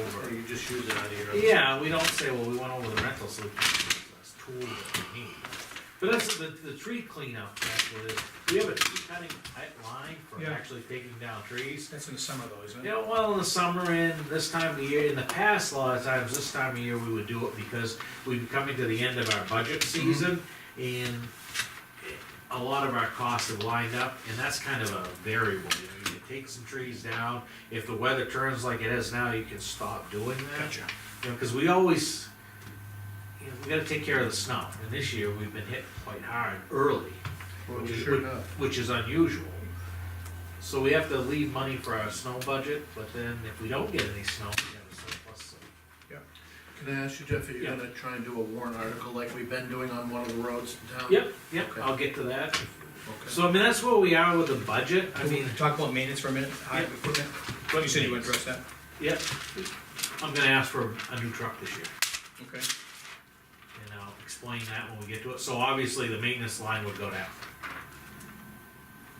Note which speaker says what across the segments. Speaker 1: you just use it out of your.
Speaker 2: Yeah, we don't say, well, we went over the rental, so we can use this tool that we need. But that's the, the tree cleanup, that's what it is. We have a tree cutting line for
Speaker 3: Yeah.
Speaker 2: actually taking down trees.
Speaker 3: That's in the summer though, isn't it?
Speaker 2: Yeah, well, in the summer and this time of the year, in the past, a lot of times, this time of year, we would do it because we'd be coming to the end of our budget
Speaker 3: Mm-hmm.
Speaker 2: season and a lot of our costs have lined up and that's kind of a variable, you know, you can take some trees down. If the weather turns like it is now, you can stop doing that.
Speaker 3: Gotcha.
Speaker 2: You know, cause we always, you know, we gotta take care of the snow and this year we've been hit quite hard early
Speaker 1: Well,
Speaker 2: which is-
Speaker 1: sure enough.
Speaker 2: which is unusual. So we have to leave money for our snow budget, but then if we don't get any snow, we have a surplus.
Speaker 1: Can I ask you, Jeff, are you
Speaker 2: Yeah.
Speaker 1: gonna try and do a warrant article like we've been doing on one of the roads in town?
Speaker 2: Yep, yep,
Speaker 1: Okay.
Speaker 2: I'll get to that.
Speaker 1: Okay.
Speaker 2: So I mean, that's where we are with the budget, I mean,
Speaker 4: Talk about maintenance for a minute, highway equipment,
Speaker 2: but-
Speaker 4: you said you would address that,
Speaker 2: Yep, I'm gonna ask for a new truck this year,
Speaker 4: okay?
Speaker 2: and I'll explain that when we get to it, so obviously the maintenance line would go down.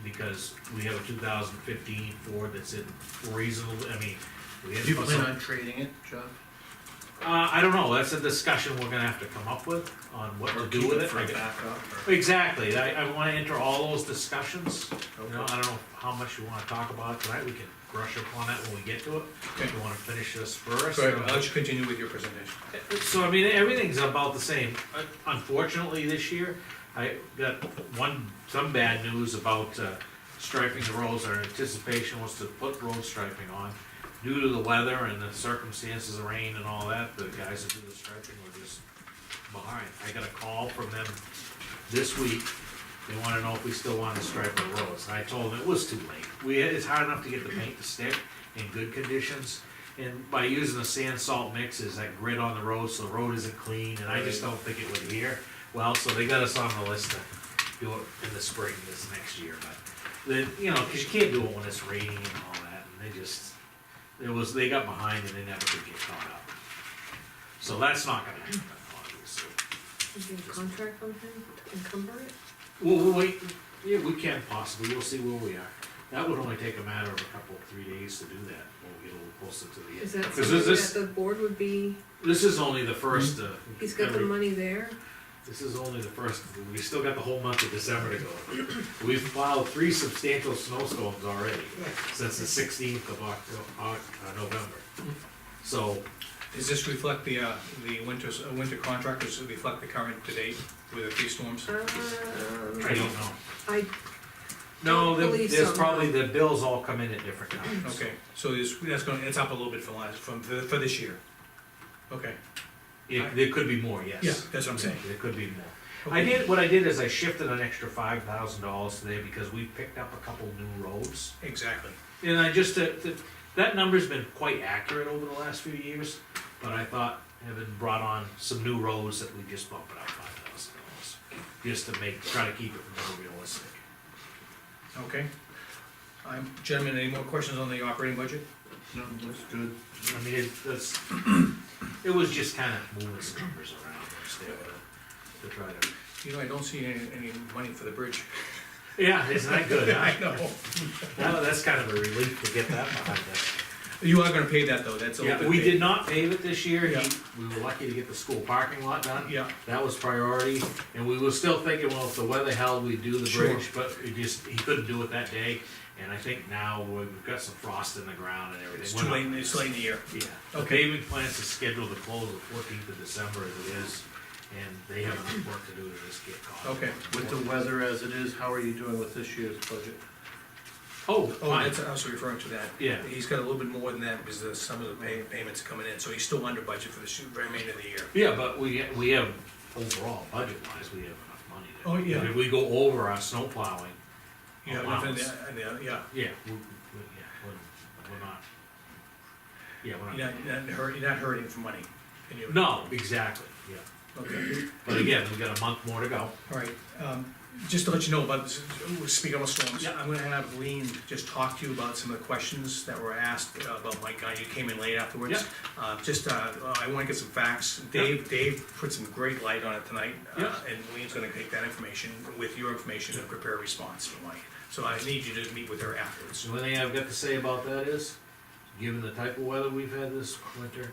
Speaker 2: Because we have a two thousand fifteen Ford that's in reasonable, I mean, we have.
Speaker 1: Do you plan on trading it, Jeff?
Speaker 2: Uh, I don't know, that's a discussion we're gonna have to come up with on what
Speaker 1: Or
Speaker 2: to
Speaker 1: keep
Speaker 2: do with it.
Speaker 1: For
Speaker 2: I
Speaker 1: a
Speaker 2: gu-
Speaker 1: backup? or-
Speaker 2: Exactly, I, I wanna enter all those discussions, you know,
Speaker 1: Okay.
Speaker 2: I don't know how much you wanna talk about it tonight, we can brush upon that when we get to it. If
Speaker 4: Okay.
Speaker 2: you wanna finish this first.
Speaker 4: So
Speaker 2: uh,
Speaker 4: I'll let you continue with your presentation.
Speaker 2: So I mean, everything's about the same, Uh, unfortunately, this year, I got one, some bad news about uh, striping the roads, our anticipation was to put road striping on. Due to the weather and the circumstances of rain and all that, the guys that do the striping were just behind. I got a call from them this week, they wanna know if we still wanna stripe the roads, and I told them it was too late. We, it's hard enough to get the paint to stick in good conditions, and by using the sand salt mix is that grit on the road, so the road isn't clean, and I just don't think it would adhere. Well, so they got us on the list to do it in the spring this next year, but then, you know, cause you can't do it when it's raining and all that, and they just, it was, they got behind and they never could get caught up. So that's not gonna happen, obviously.
Speaker 5: Is there a contract on him to encumber it?
Speaker 2: Well, we'll wait, yeah, we can possibly, we'll see where we are. That would only take a matter of a couple, three days to do that, when we get a little closer to the end.
Speaker 5: Is that
Speaker 2: 'Cause
Speaker 5: something
Speaker 2: this- this-
Speaker 5: that the board would be,
Speaker 2: This is only the first, uh.
Speaker 5: he's got the
Speaker 2: every-
Speaker 5: money there?
Speaker 2: This is only the first, we still got the whole month of December to go. We've filed three substantial snowstorms already, since the sixteenth of Octo- Oc- uh, November.
Speaker 5: Mm-hmm.
Speaker 2: So,
Speaker 4: Does this reflect the, uh, the winters, uh, winter contractors, does it reflect the current to date with the three storms?
Speaker 2: I don't
Speaker 5: Um,
Speaker 2: know.
Speaker 5: Uh, I,
Speaker 2: No,
Speaker 5: Don't
Speaker 2: there-
Speaker 5: believe
Speaker 2: there's
Speaker 5: so,
Speaker 2: probably, the
Speaker 5: no.
Speaker 2: bills all come in at different times.
Speaker 4: Okay, so it's, that's gonna, it's up a little bit from last, from, for for this year? Okay,
Speaker 2: Yeah, there could be more, yes.
Speaker 4: Yeah, that's what I'm saying.
Speaker 2: There could be more. I did, what I did is I shifted an extra five thousand dollars today because we picked up a couple new roads.
Speaker 4: exactly.
Speaker 2: And I just, uh, th- that number's been quite accurate over the last few years, but I thought having brought on some new roads that we just bump it up five thousand dollars. Just to make, try to keep it more realistic.
Speaker 4: Okay. Um, Gentlemen, any more questions on the operating budget?
Speaker 1: No, that's good.
Speaker 2: I mean, it, that's, it was just kinda moving some numbers around instead of, to try to.
Speaker 4: You know, I don't see any, any money for the bridge.
Speaker 2: Yeah, isn't that good, huh?
Speaker 4: I know.
Speaker 2: Well, that's kind of a relief to get that behind us.
Speaker 4: You are gonna pay that though, that's a little
Speaker 2: Yeah,
Speaker 4: bit.
Speaker 2: we
Speaker 4: paid.
Speaker 2: did not pave it this year,
Speaker 4: Yeah.
Speaker 2: we were lucky to get the school parking lot done.
Speaker 4: Yeah,
Speaker 2: That was priority, and we were still thinking, well, if the weather held, we'd do the
Speaker 4: Sure.
Speaker 2: bridge, but it just, he couldn't do it that day. And I think now we've got some frost in the ground and everything.
Speaker 4: it's
Speaker 2: We're
Speaker 4: too
Speaker 2: not-
Speaker 4: late, it's late in the year.
Speaker 2: Yeah, the
Speaker 4: Okay.
Speaker 2: paving plans is scheduled to close the fourteenth of December as it is, and they have enough work to do to just get caught. up.
Speaker 4: Okay.
Speaker 1: With the weather as it is, how are you doing with this year's budget?
Speaker 2: Oh,
Speaker 4: Oh,
Speaker 2: fine,
Speaker 4: that's, I was referring to that.
Speaker 2: Yeah.
Speaker 4: He's got a little bit more than that because of some of the pay, payments coming in, so he's still under budget for the shoot- remainder of the year.
Speaker 2: yeah, but we, we have, overall, budget-wise, we have enough money there.
Speaker 4: Oh, yeah.
Speaker 2: If we go over our snow plowing,
Speaker 4: You
Speaker 2: Oh,
Speaker 4: have enough in there, and there- yeah,
Speaker 2: yeah, we, we, yeah, we're, we're not. Yeah, we're not.
Speaker 4: you're not, you're not hurt, you're not hurting for money. and you-
Speaker 2: No, exactly, yeah.
Speaker 4: Okay,
Speaker 2: But again, we've got a month more to go.
Speaker 4: all right, um, just to let you know about, this- ooh, speaking of storms,
Speaker 2: Yeah.
Speaker 4: I'm gonna have Lean just talk to you about some of the questions that were asked uh, about Mike Guy, you came in late afterwards.
Speaker 2: Yeah.
Speaker 4: Uh, just, uh, I wanna get some facts, Dave, Dave put some great light on it tonight. uh,
Speaker 2: Yeah.
Speaker 4: And Lean's gonna take that information with your information and prepare a response for Mike. So I need you to meet with her afterwards.
Speaker 2: The only thing I've got to say about that is, given the type of weather we've had this winter,